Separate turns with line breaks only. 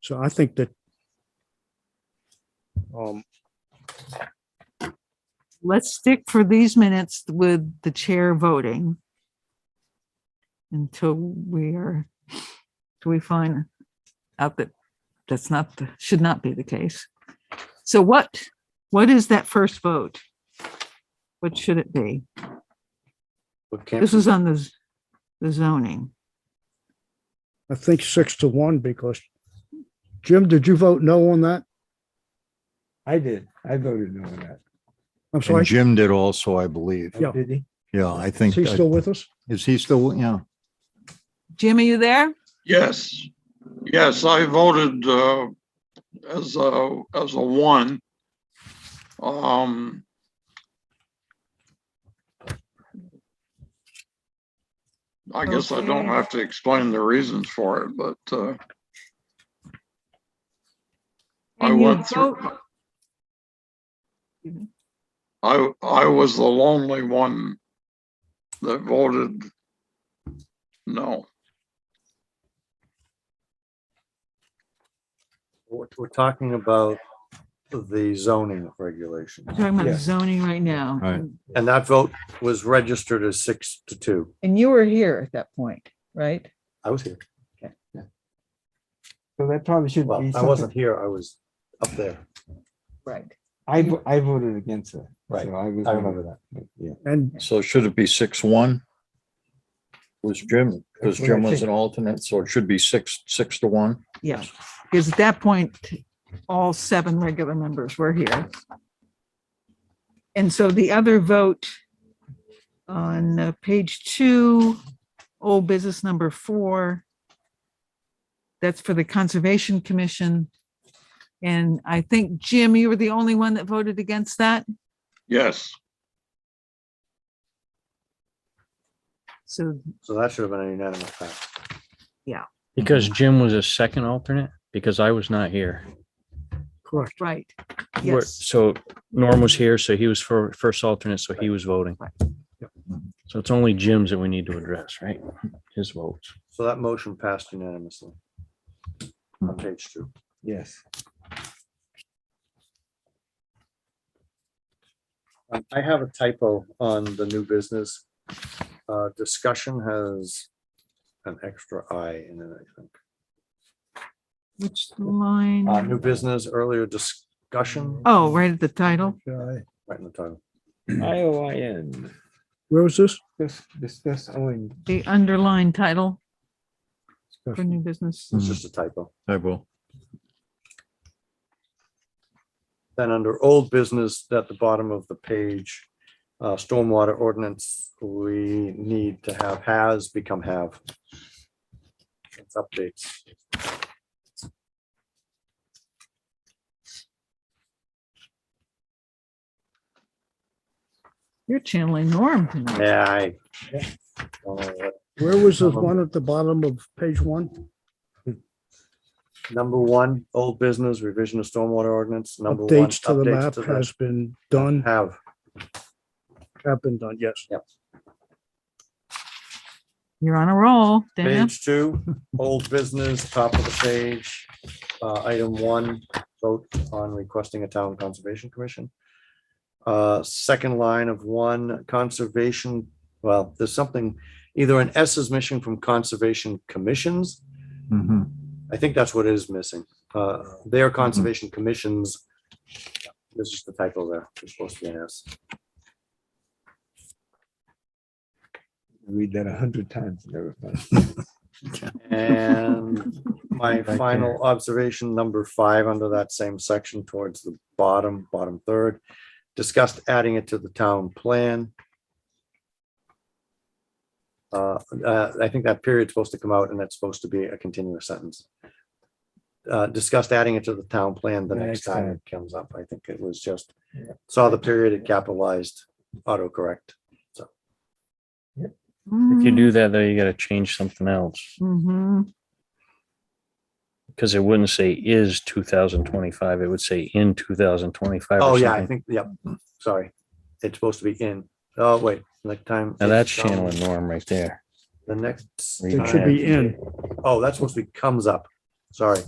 So I think that um,
let's stick for these minutes with the chair voting. Until we are, till we find out that that's not, the should not be the case. So what, what is that first vote? What should it be?
What can't,
This is on the, z- the zoning.
I think six to one because Jim, did you vote no on that?
I did. I voted no on that. Oh,
I'm sorry.
And Jim did also, I believe.
Yeah.
Did he?
Yeah, I
Is
think,
he still with us?
is he still, yeah.
Jim, are you there?
Yes, yes, I voted uh, as a, as a one. Um, I guess I don't
Okay.
have to explain the reasons for it, but uh, I
And you
went through.
vote-
I, I was the lonely one that voted no.
we're we're talking about the zoning regulations.
Talking about
Yeah.
zoning right now.
Right.
And that vote was registered as six to two.
And you were here at that point, right?
I was here.
So that probably should
Well,
be.
I wasn't here. I was up there.
Right.
I, vo- I voted against it.
Right.
So I was.
I remember that.
Yeah.
And
So should it be six, one? Was Jim, because Jim was an alternate, so it should be six, six to one.
Yeah, because at that point, all seven regular members were here. And so the other vote on uh, page two, old business number four, that's for the Conservation Commission. And I think, Jim, you were the only one that voted against that.
Yes,
So
So that should have been a unanimous pass.
Because Jim was a second alternate, because I was not here.
correct.
Right.
We're-
Yes.
So Norm was here, so he was for first alternate, so he was voting. So it's only Jim's that we need to address, right? His votes.
So that motion passed unanimously. On page two.
Yes.
Um, I have a typo on the new business. Uh, discussion has an extra I in it, I think.
Which
Uh, new
line?
business, earlier discussion,
Oh, right at the title.
Okay.
right in the title.
I O I N.
Where was this?
This, this, this, oh, and
the underlined title for new business.
It's just a typo.
I will.
Then under old business, at the bottom of the page, uh, stormwater ordinance, we need to have has become have. It's updates.
You're channeling Norm tonight.
Yeah, I. don't know what-
Where was the one at the bottom of page one?
Number one, old business revision of stormwater ordinance, number one.
Updates to the
updates
map has been done,
Have.
have been done, yes.
You're on a roll, Dan.
Page two, old business, top of the page, uh, item one, vote on requesting a town conservation commission. Uh, second line of one, conservation, well, there's something, either an S is missing from conservation commissions. Mm-hmm. I think that's what is missing. Uh,
Mm-hmm.
their conservation commissions. This is the typo there. It's supposed to be an S.
read that a hundred times. and never found it.
And my final observation, number five, under that same section towards the bottom, bottom third, discussed adding it to the town plan. Uh, uh, I think that period's supposed to come out and that's supposed to be a continuous sentence. Uh, discussed adding it to the town plan the
The
next
next
time it comes up. I think it was just, saw the period, it capitalized, autocorrect.
If you do that, though, you gotta change something else,
Mhm.
because it wouldn't say is two thousand twenty-five, it would say in two thousand twenty-five.
Oh, yeah, I think, yep, sorry. It's supposed to be in, oh, wait, next time.
Now that's
it's, um,
channeling Norm right there.
The next.
Read
It should be in.
Oh, that's supposed to be comes up. Sorry.